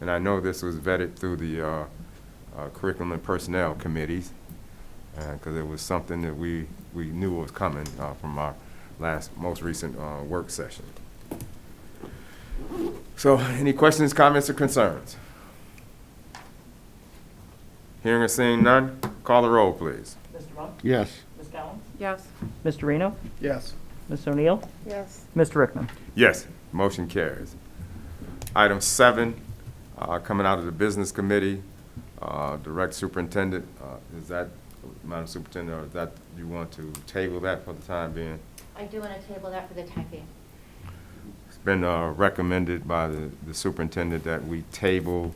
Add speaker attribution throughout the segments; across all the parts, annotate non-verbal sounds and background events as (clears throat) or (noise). Speaker 1: And I know this was vetted through the uh, uh, Curriculum and Personnel Committees, because it was something that we, we knew was coming uh, from our last, most recent uh, work session. So any questions, comments, or concerns? Hearing or seeing none, call the roll, please.
Speaker 2: Mr. Monk?
Speaker 3: Yes.
Speaker 2: Ms. Collins?
Speaker 4: Yes.
Speaker 2: Mr. Reno?
Speaker 3: Yes.
Speaker 2: Ms. O'Neill?
Speaker 4: Yes.
Speaker 2: Mr. Rickman?
Speaker 1: Yes, motion carries. Item seven, uh, coming out of the Business Committee, uh, Direct Superintendent, uh, is that, Madam Superintendent, or is that, you want to table that for the time being?
Speaker 5: I do want to table that for the time being.
Speaker 1: It's been uh, recommended by the the superintendent that we table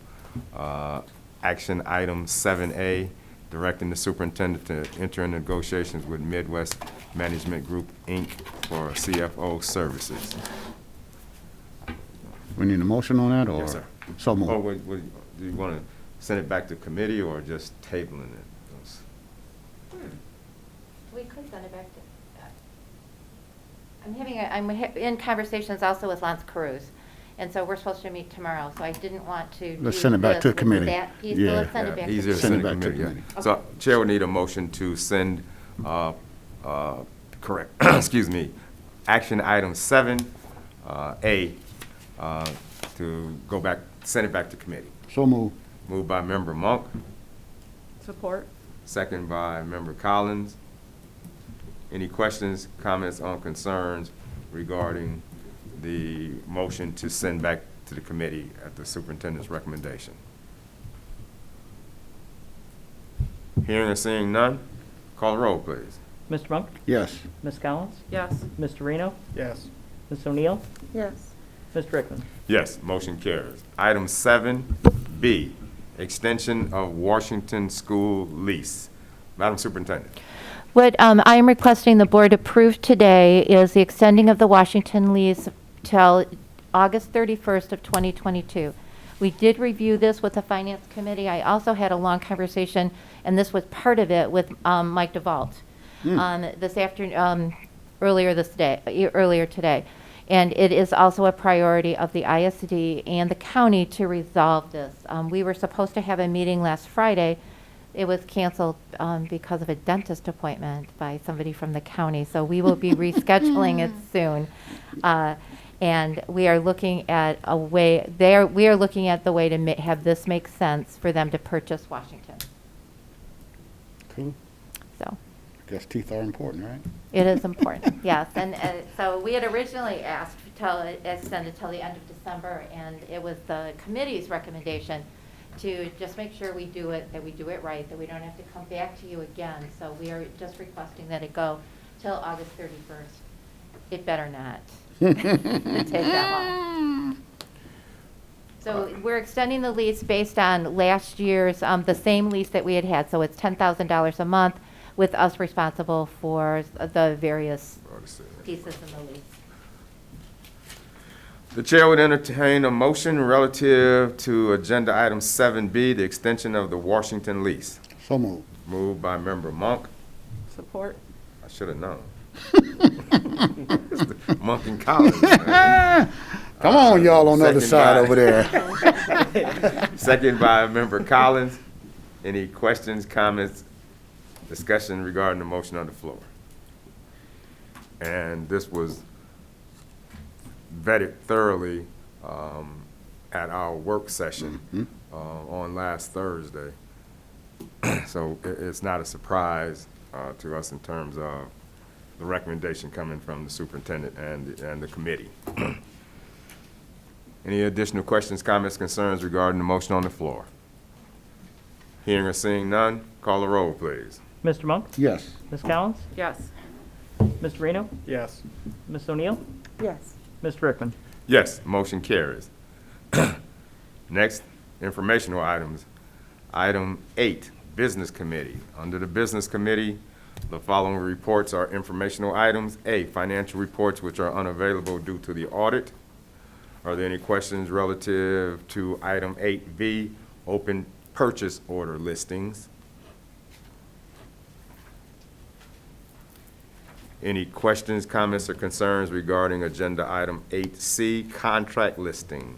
Speaker 1: uh, action item 7A, directing the superintendent to enter in negotiations with Midwest Management Group, Inc. for CFO services.
Speaker 3: We need a motion on that, or?
Speaker 1: Yes, sir. Oh,
Speaker 3: So
Speaker 1: Or
Speaker 3: moved.
Speaker 1: would- would- do you want to send it back to committee or just tabling it?
Speaker 5: We could send it back to, I'm having, a- I'm ha- in conversations also with Lance Cruz, and so we're supposed to meet tomorrow, so I didn't want to.
Speaker 3: Let's
Speaker 5: do
Speaker 3: send it back
Speaker 5: this
Speaker 3: to
Speaker 5: with
Speaker 3: committee.
Speaker 5: that piece, so
Speaker 3: Yeah.
Speaker 5: let's send it
Speaker 1: Yeah,
Speaker 5: back. to
Speaker 1: Easier to
Speaker 5: committee.
Speaker 1: send it to committee, yeah. So Chair would need a motion to send, uh, uh, correct, (clears throat) excuse me, action item seven, uh, A, uh, to go back, send it back to committee.
Speaker 3: So moved.
Speaker 1: Moved by member Monk,
Speaker 4: Support?
Speaker 1: second by member Collins. Any questions, comments on concerns regarding the motion to send back to the committee at the superintendent's recommendation? Hearing or seeing none, call the roll, please.
Speaker 2: Mr. Monk?
Speaker 3: Yes.
Speaker 2: Ms. Collins?
Speaker 4: Yes.
Speaker 2: Mr. Reno?
Speaker 3: Yes.
Speaker 2: Ms. O'Neill?
Speaker 4: Yes.
Speaker 2: Mr. Rickman?
Speaker 1: Yes, motion carries. Item seven B, extension of Washington school lease. Madam Superintendent.
Speaker 5: What um, I am requesting the board approve today is the extending of the Washington lease till August 31st of 2022. We did review this with the Finance Committee. I also had a long conversation, and this was part of it, with um, Mike DeVault
Speaker 3: Hmm.
Speaker 5: um, this afternoon, earlier this day, e- earlier today. And it is also a priority of the ISD and the county to resolve this. Um, We were supposed to have a meeting last Friday. It was canceled um, because of a dentist appointment by somebody from the county, so we will be rescheduling it soon. Uh, And we are looking at a way, they are, we are looking at the way to ma- have this make sense for them to purchase Washington.
Speaker 3: Cool.
Speaker 5: So
Speaker 3: Guess teeth are important, right?
Speaker 5: it is important, (laughs) yes. And uh, so we had originally asked till, extended till the end of December, and it was the committee's recommendation to just make sure we do it, that we do it right, that we don't have to come back to you again. So we are just requesting that it go till August 31st. It better not take that long. So we're extending the lease based on last year's, um, the same lease that we had had. So it's $10,000 a month with us responsible for the various pieces in the lease.
Speaker 1: The chair would entertain a motion relative to agenda item seven B, the extension of the Washington lease.
Speaker 3: So moved.
Speaker 1: Moved by member Monk.
Speaker 4: Support?
Speaker 1: I should have known. (laughs) Monk and Collins. man.
Speaker 3: Come on, y'all on the other
Speaker 1: Second
Speaker 3: side
Speaker 1: by-
Speaker 3: over there.
Speaker 1: (laughs) Second by member Collins. Any questions, comments, discussion regarding the motion on the floor? And this was vetted thoroughly um, at our work session uh, on last Thursday. (clears throat) So i- it's not a surprise uh, to us in terms of the recommendation coming from the superintendent and, and the committee. Any additional questions, comments, concerns regarding the motion on the floor? Hearing or seeing none, call the roll, please.
Speaker 2: Mr. Monk?
Speaker 3: Yes.
Speaker 2: Ms. Collins?
Speaker 4: Yes.
Speaker 2: Mr. Reno?
Speaker 3: Yes.
Speaker 2: Ms. O'Neill?
Speaker 4: Yes.
Speaker 2: Mr. Rickman?
Speaker 1: Yes, motion carries. (clears throat) Next, informational items. Item eight, Business Committee. Under the Business Committee, the following reports are informational items. A, financial reports which are unavailable due to the audit. Are there any questions relative to item eight B, open purchase order listings? Any questions, comments, or concerns regarding Agenda Item 8C, contract listing?